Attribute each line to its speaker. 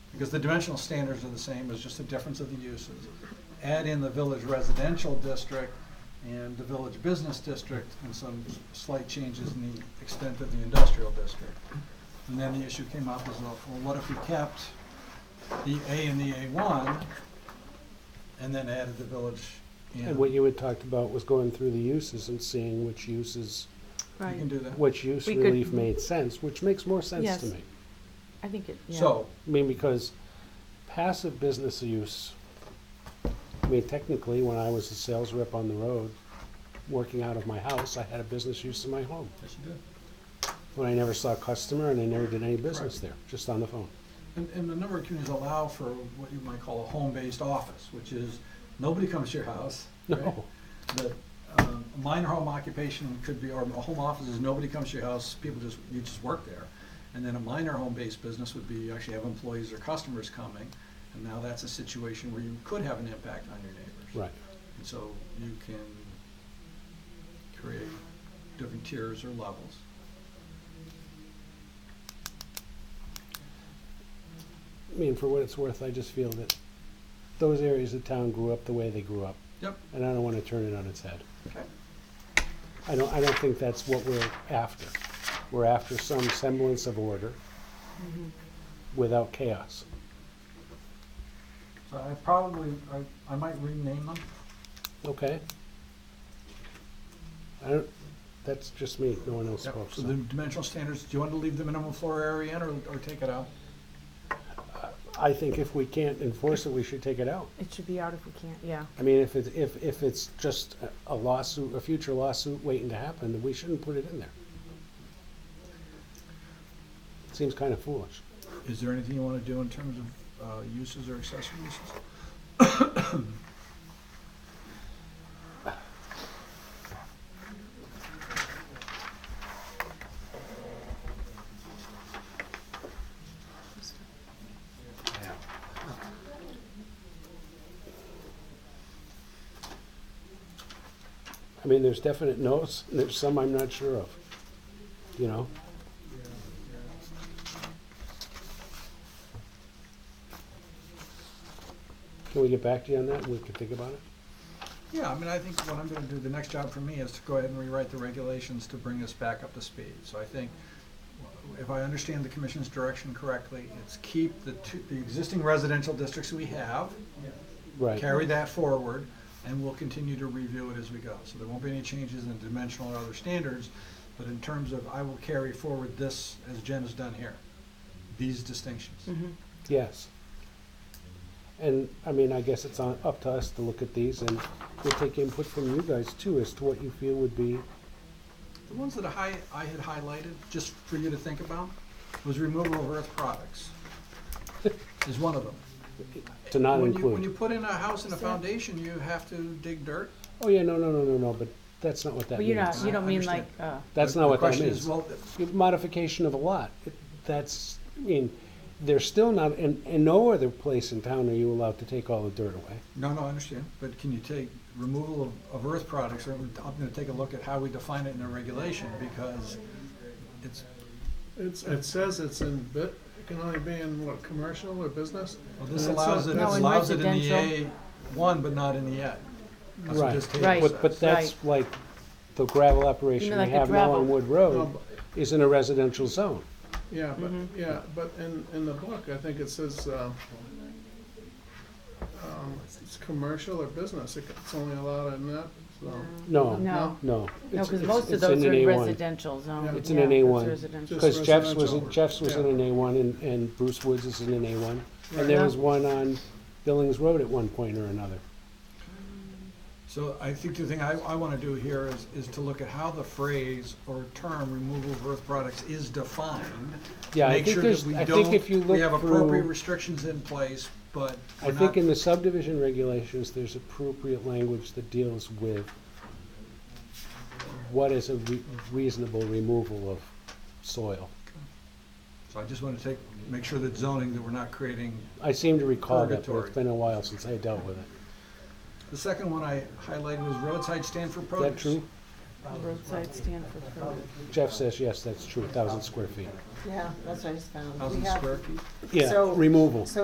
Speaker 1: because the dimensional standards are the same, it's just the difference of the uses. Add in the village residential district and the village business district and some slight changes in the extent of the industrial district. And then the issue came up was, well, what if we kept the A and the A one and then added the village in?
Speaker 2: And what you had talked about was going through the uses and seeing which uses,
Speaker 1: You can
Speaker 3: Right,
Speaker 1: do that.
Speaker 2: which use
Speaker 3: We could-
Speaker 2: relief made sense, which makes more sense
Speaker 3: Yes.
Speaker 2: to me.
Speaker 3: I think it, yeah.
Speaker 1: So,
Speaker 2: I mean, because passive business use, I mean, technically, when I was a sales rep on the road, working out of my house, I had a business use in my home.
Speaker 1: yes, you did.
Speaker 2: But I never saw a customer and I never did any business there, just on the phone.
Speaker 1: And, and a number of communities allow for what you might call a home-based office, which is, nobody comes to your house. right?
Speaker 2: No,
Speaker 1: That, um, a minor home occupation could be, or a home office is nobody comes to your house, people just, you just work there. And then a minor home-based business would be, you actually have employees or customers coming, and now that's a situation where you could have an impact on your neighbors.
Speaker 2: right.
Speaker 1: And so you can create different tiers or levels.
Speaker 2: I mean, for what it's worth, I just feel that those areas of town grew up the way they grew up.
Speaker 1: Yep.
Speaker 2: And I don't want to turn it on its head.
Speaker 1: Okay.
Speaker 2: I don't, I don't think that's what we're after. We're after some semblance of order without chaos.
Speaker 1: So I probably, I, I might rename them.
Speaker 2: Okay? I don't, that's just me, no one else
Speaker 1: Yep,
Speaker 2: spoke.
Speaker 1: so
Speaker 2: so.
Speaker 1: the dimensional standards, do you want to leave the minimum floor area in or, or take it out?
Speaker 2: I think if we can't enforce it, we should take it out.
Speaker 3: It should be out if we can't, yeah.
Speaker 2: I mean, if it, if, if it's just a- a lawsuit, a future lawsuit waiting to happen, then we shouldn't put it in there. Seems kind of foolish.
Speaker 1: Is there anything you want to do in terms of, uh, uses or accessory uses?
Speaker 2: I mean, there's definite no's, and there's some I'm not sure of, you know? Can we get back to you on that, we can think about it?
Speaker 1: Yeah, I mean, I think what I'm gonna do, the next job for me is to go ahead and rewrite the regulations to bring us back up to speed. So I think, w- if I understand the commission's direction correctly, it's keep the two, the existing residential districts we have,
Speaker 2: Right,
Speaker 1: carry that forward, and we'll continue to review it as we go. So there won't be any changes in dimensional or other standards, but in terms of, I will carry forward this, as Jen has done here, these distinctions.
Speaker 2: yes. And, I mean, I guess it's on, up to us to look at these, and we'll take input from you guys too, as to what you feel would be,
Speaker 1: The ones that I, I had highlighted, just for you to think about, was removal of earth products, is one of them.
Speaker 2: to not
Speaker 1: When you, when you
Speaker 2: include.
Speaker 1: put in a house and a foundation, you have to dig dirt.
Speaker 2: Oh, yeah, no, no, no, no, no, but that's not what that
Speaker 3: But you're
Speaker 2: means.
Speaker 3: not, you don't
Speaker 1: I
Speaker 3: mean like,
Speaker 1: understand.
Speaker 3: uh,
Speaker 2: That's
Speaker 1: The-
Speaker 2: not
Speaker 1: the
Speaker 2: what that
Speaker 1: question is,
Speaker 2: means.
Speaker 1: Well,
Speaker 2: modification of a lot. That's, I mean, they're still not, in, in no other place in town are you allowed to take all the dirt away.
Speaker 1: no, no, I understand, but can you take removal of, of earth products, or I'm gonna take a look at how we define it in the regulation, because it's,
Speaker 4: It's, it says it's in bit, it can only be in what, commercial or business?
Speaker 1: well, this
Speaker 4: And it's
Speaker 1: allows
Speaker 4: not-
Speaker 1: it,
Speaker 3: No, in
Speaker 1: allows it in the A
Speaker 3: residential.
Speaker 1: one, but not in the E A. That's what
Speaker 2: Right.
Speaker 1: this table
Speaker 3: Right.
Speaker 2: But, but
Speaker 1: says.
Speaker 2: that's like the gravel
Speaker 3: You
Speaker 2: operation we
Speaker 3: mean like the
Speaker 2: have now on
Speaker 3: gravel?
Speaker 2: Wood
Speaker 4: No,
Speaker 2: Road
Speaker 4: but-
Speaker 2: is in a residential zone.
Speaker 4: Yeah, but, yeah, but in, in the book, I think it says, um, um, it's commercial or business, It- it's only allowed in that, so.
Speaker 2: No,
Speaker 3: no,
Speaker 2: no.
Speaker 3: no,
Speaker 2: It's-
Speaker 3: because
Speaker 2: it's-
Speaker 3: most of
Speaker 2: it's Oh. in
Speaker 3: those
Speaker 2: an
Speaker 3: are
Speaker 2: A1.
Speaker 3: residential zone.
Speaker 4: Yeah.
Speaker 2: It's in
Speaker 3: Yeah,
Speaker 2: an
Speaker 3: that's
Speaker 2: A1.
Speaker 3: residential.
Speaker 4: Just-
Speaker 2: Because Jeff's was,
Speaker 4: residential.
Speaker 2: Jeff's was in
Speaker 4: Yeah.
Speaker 2: an A1 and, and Bruce Woods is in an A1.
Speaker 4: Right.
Speaker 2: And there
Speaker 3: Yeah.
Speaker 2: was one on Billings Road at one point or another.
Speaker 1: So I think the thing I, I wanna do here is, is to look at how the phrase or term removal of earth products is defined.
Speaker 2: Yeah, I
Speaker 1: Make
Speaker 2: think
Speaker 1: sure that
Speaker 2: there's,
Speaker 1: we
Speaker 2: I think
Speaker 1: don't-
Speaker 2: if you look through.
Speaker 1: We have appropriate restrictions in place, but
Speaker 2: I
Speaker 1: we're
Speaker 2: think
Speaker 1: not
Speaker 2: in the subdivision regulations, there's appropriate language that deals with what is a re- reasonable removal of soil.
Speaker 1: So I just want to take, make sure that zoning, that we're not creating.
Speaker 2: I seem to recall that, but
Speaker 1: Purgatory.
Speaker 2: it's been a while since I dealt with it.
Speaker 1: The second one I highlighted was roadside stand for
Speaker 2: Is
Speaker 1: produce.
Speaker 2: that true?
Speaker 3: Roadside stand for produce.
Speaker 2: Jeff says, yes, that's true, thousand square feet.
Speaker 5: Yeah, that's what I just found. We
Speaker 1: Thousand
Speaker 5: have-
Speaker 1: square feet.
Speaker 2: Yeah,
Speaker 5: So-
Speaker 2: removal.
Speaker 5: so